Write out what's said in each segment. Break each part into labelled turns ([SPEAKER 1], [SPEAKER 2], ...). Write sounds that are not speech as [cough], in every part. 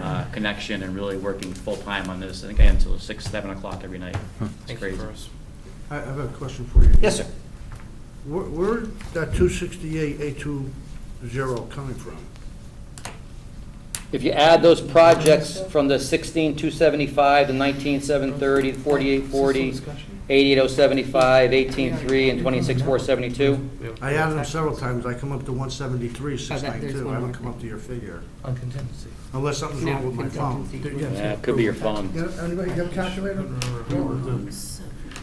[SPEAKER 1] uh, connection and really working full-time on this. I think I am until six, seven o'clock every night. It's
[SPEAKER 2] Thank you
[SPEAKER 1] crazy.
[SPEAKER 2] for us.
[SPEAKER 3] I I have a question for you.
[SPEAKER 1] Yes, sir.
[SPEAKER 3] Where, where that two sixty-eight, eight two zero coming from?
[SPEAKER 4] If you add those projects from the 16,275, the 19,730, 4840, 88,075, 18,3, and 26,472,
[SPEAKER 3] I added them several times, I come up to one seventy-three, six
[SPEAKER 5] Oh, that- there's
[SPEAKER 3] ninety-two, I
[SPEAKER 5] one
[SPEAKER 3] don't
[SPEAKER 5] more
[SPEAKER 3] come up to your figure,
[SPEAKER 2] On contingency.
[SPEAKER 3] unless something's wrong with my phone.
[SPEAKER 5] Contingency.
[SPEAKER 3] Yeah.
[SPEAKER 1] Yeah, it could be your phone.
[SPEAKER 6] Yeah, Anybody got a calculator?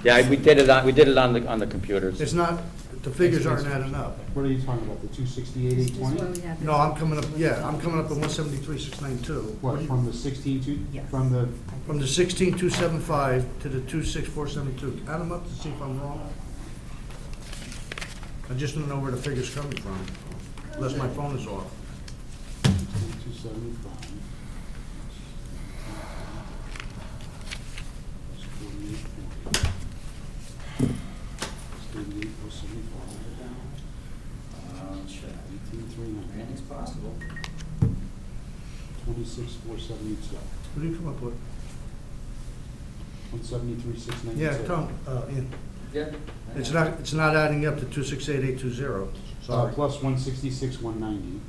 [SPEAKER 4] yeah, I- we did it on, we did it on the, on the computers.
[SPEAKER 3] It's not, the figures aren't adding up.
[SPEAKER 6] What are you talking about, the two sixty-eight, eight twenty?
[SPEAKER 3] No, I'm coming up, yeah, I'm coming up to one seventy-three, six ninety-two.
[SPEAKER 6] What, from the sixteen to, from the,
[SPEAKER 3] From the sixteen, two seven five to the two six, four seven two, add them up to see if I'm wrong. I just don't know where the figure's coming from, unless my phone is off.
[SPEAKER 6] two seventy-five? Eighty-eight, four seventy-five. Eighteen, three ninety,
[SPEAKER 7] possible.
[SPEAKER 6] twenty-six, four seventy-two,
[SPEAKER 3] What do you come up with?
[SPEAKER 6] one seventy-three, six ninety-two.
[SPEAKER 3] Yeah, Tom, uh, Ian.
[SPEAKER 7] Yeah.
[SPEAKER 3] It's not, it's not adding up to two six eight eight two zero,
[SPEAKER 6] Uh,
[SPEAKER 3] sorry.
[SPEAKER 6] plus one sixty-six, one ninety.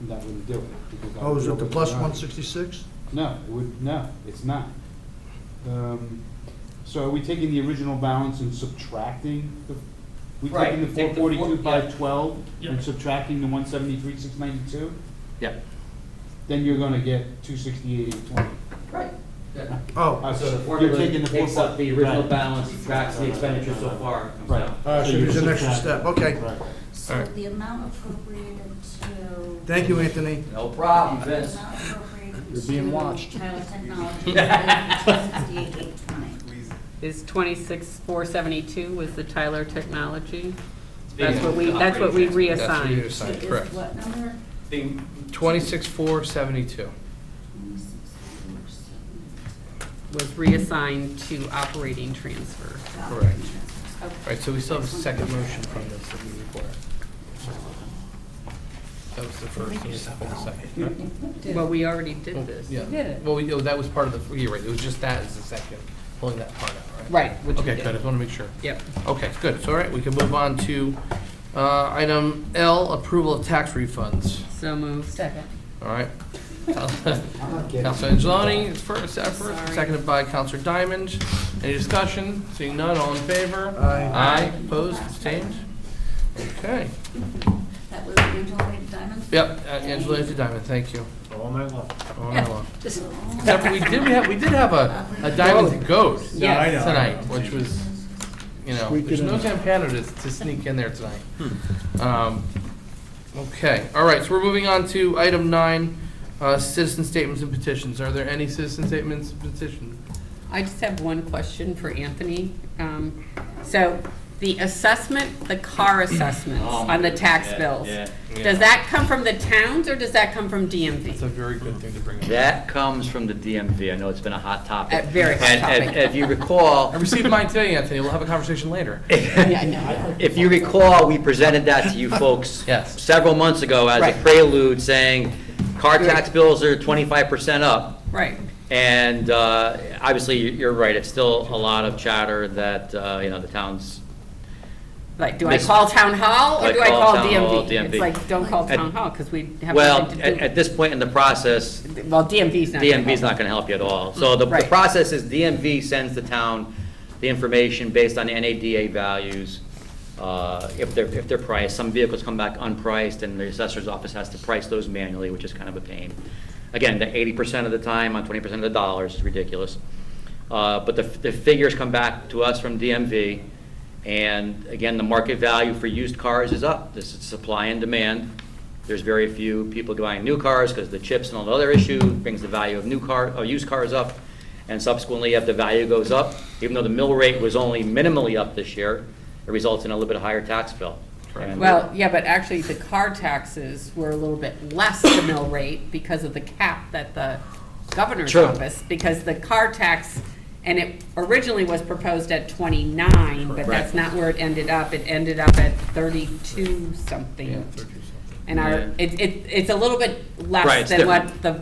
[SPEAKER 6] And that wouldn't do it. because that
[SPEAKER 3] Oh, is
[SPEAKER 6] would
[SPEAKER 3] it the
[SPEAKER 6] be
[SPEAKER 3] plus
[SPEAKER 6] override.
[SPEAKER 3] one sixty-six?
[SPEAKER 6] No, it would, no, it's not. Um, So are we taking the original balance and subtracting the, we
[SPEAKER 7] Right,
[SPEAKER 6] taking the four
[SPEAKER 7] take the four-
[SPEAKER 6] forty-two, five twelve
[SPEAKER 1] Yeah.
[SPEAKER 6] and subtracting the one seventy-three, six ninety-two?
[SPEAKER 1] Yeah.
[SPEAKER 6] Then you're gonna get two sixty-eight, eight twenty. Uh,
[SPEAKER 7] Right. Yeah.
[SPEAKER 3] Oh,
[SPEAKER 7] So the formula takes up the original balance, subtracts the
[SPEAKER 6] Right.
[SPEAKER 7] expenditure so far, comes
[SPEAKER 6] Right.
[SPEAKER 7] out.
[SPEAKER 3] uh, so there's an extra
[SPEAKER 6] subtract-
[SPEAKER 3] step, okay.
[SPEAKER 6] Right.
[SPEAKER 2] All
[SPEAKER 5] So
[SPEAKER 2] right.
[SPEAKER 5] the amount appropriated to.
[SPEAKER 3] Thank you, Anthony.
[SPEAKER 7] No problem,
[SPEAKER 5] The
[SPEAKER 7] Vince.
[SPEAKER 5] amount appropriated
[SPEAKER 6] You're being
[SPEAKER 5] to
[SPEAKER 6] watched.
[SPEAKER 5] Child technology,
[SPEAKER 6] [laughs]
[SPEAKER 5] sixty-eight, eight twenty.
[SPEAKER 8] Is twenty-six, four seventy-two was the Tyler Technology?
[SPEAKER 1] being
[SPEAKER 8] That's what we, that's what we
[SPEAKER 1] operating
[SPEAKER 2] That's what you
[SPEAKER 8] reassigned.
[SPEAKER 2] assigned, correct.
[SPEAKER 5] What number?
[SPEAKER 1] Being-
[SPEAKER 2] Twenty-six, four, seventy-two.
[SPEAKER 5] Twenty-six, four, seven.
[SPEAKER 8] Was reassigned to operating transfer.
[SPEAKER 2] Correct.
[SPEAKER 5] Okay.
[SPEAKER 2] All right, so we still have a second motion from this that we require. That was the first, and second, the second.
[SPEAKER 8] Well, we already did
[SPEAKER 2] right?
[SPEAKER 8] this.
[SPEAKER 2] Yeah, well, we- oh, that was part of the, you're right, it was just that as the second, pulling that part out, right?
[SPEAKER 8] Right, which we
[SPEAKER 2] Okay, good, I
[SPEAKER 8] did.
[SPEAKER 2] just want to make sure.
[SPEAKER 8] Yep.
[SPEAKER 2] Okay, good, so all right, we can move on to uh, item L, approval of tax refunds.
[SPEAKER 8] So moved. Second.
[SPEAKER 2] All right.
[SPEAKER 6] I'm not getting
[SPEAKER 2] Counselor
[SPEAKER 6] it.
[SPEAKER 2] Angeloni is first, uh, first,
[SPEAKER 8] Sorry.
[SPEAKER 2] seconded by Counselor Diamond. Any discussion? Seeing none, all in favor?
[SPEAKER 3] Aye.
[SPEAKER 2] Aye, opposed, abstained? Okay.
[SPEAKER 5] That was Angela Diamond?
[SPEAKER 2] Yep, uh, Angela is a Diamond, thank you.
[SPEAKER 6] All night long.
[SPEAKER 2] All in all. Except for we did, we have, we did have a, a Diamond goat
[SPEAKER 8] Yes.
[SPEAKER 2] tonight, which was, you know,
[SPEAKER 6] Squeak it
[SPEAKER 2] there's no
[SPEAKER 6] in.
[SPEAKER 2] Zampano to, to sneak in there tonight. Um, Okay, all right, so we're moving on to item nine, uh, citizen statements and petitions. Are there any citizen statements and petitions?
[SPEAKER 8] I just have one question for Anthony. Um, So the assessment, the car assessments
[SPEAKER 1] Oh,
[SPEAKER 8] on the tax
[SPEAKER 1] yeah,
[SPEAKER 8] bills,
[SPEAKER 1] yeah.
[SPEAKER 2] Yeah.
[SPEAKER 8] does that come from the towns or does that come from DMV?
[SPEAKER 2] That's a very good thing to bring up.
[SPEAKER 1] That comes from the DMV. I know it's been a hot topic.
[SPEAKER 8] A very hot
[SPEAKER 1] And- and-
[SPEAKER 8] topic.
[SPEAKER 1] If you recall,
[SPEAKER 2] I received mine today, Anthony, we'll have a conversation later.
[SPEAKER 8] [laughs] Yeah, I know.
[SPEAKER 1] If you recall, we presented that to
[SPEAKER 8] [laughs]
[SPEAKER 1] you folks
[SPEAKER 2] Yes.
[SPEAKER 1] several months ago as a
[SPEAKER 8] Right.
[SPEAKER 1] prelude, saying car tax bills are twenty-five percent up.
[SPEAKER 8] Right.
[SPEAKER 1] And uh, obviously, you- you're right, it's still a lot of chatter that, uh, you know, the towns,
[SPEAKER 8] Like, do I
[SPEAKER 1] This-
[SPEAKER 8] call town hall or
[SPEAKER 1] Like,
[SPEAKER 8] do I
[SPEAKER 1] call
[SPEAKER 8] call
[SPEAKER 1] town hall,
[SPEAKER 8] DMV?
[SPEAKER 1] DMV.
[SPEAKER 8] It's like, don't call
[SPEAKER 1] At-
[SPEAKER 8] town hall because we have
[SPEAKER 1] well,
[SPEAKER 8] nothing
[SPEAKER 1] at
[SPEAKER 8] to
[SPEAKER 1] at this point in the process,
[SPEAKER 8] do. Well, DMV's not. gonna
[SPEAKER 1] DMV's
[SPEAKER 8] help.
[SPEAKER 1] not going to help you at all. So the the
[SPEAKER 8] Right.
[SPEAKER 1] process is DMV sends the town the information based on NADA values, uh, if they're, if they're priced. Some vehicles come back unpriced, and the assessor's office has to price those manually, which is kind of a pain. Again, the eighty percent of the time on twenty percent of the dollars is ridiculous. Uh, But the the figures come back to us from DMV, and again, the market value for used cars is up. This is supply and demand. There's very few people buying new cars because the chips and all the other issue brings the value of new car, of used cars up. And subsequently, if the value goes up, even though the mill rate was only minimally up this year, it results in a little bit higher tax bill.
[SPEAKER 2] Correct.
[SPEAKER 1] And-
[SPEAKER 8] Well, yeah, but actually the car taxes were a little bit less the mill rate because of the cap that the governor's
[SPEAKER 1] True.
[SPEAKER 8] office, because the car tax, and it originally was proposed at twenty-nine, but
[SPEAKER 1] Correct.
[SPEAKER 8] that's not where it ended up. It ended up at thirty-two something.
[SPEAKER 2] Yeah, 32 something.
[SPEAKER 8] And
[SPEAKER 1] Yeah.
[SPEAKER 8] our, it, it, it's a little bit
[SPEAKER 1] Right, it's
[SPEAKER 8] less than
[SPEAKER 1] different.
[SPEAKER 8] what the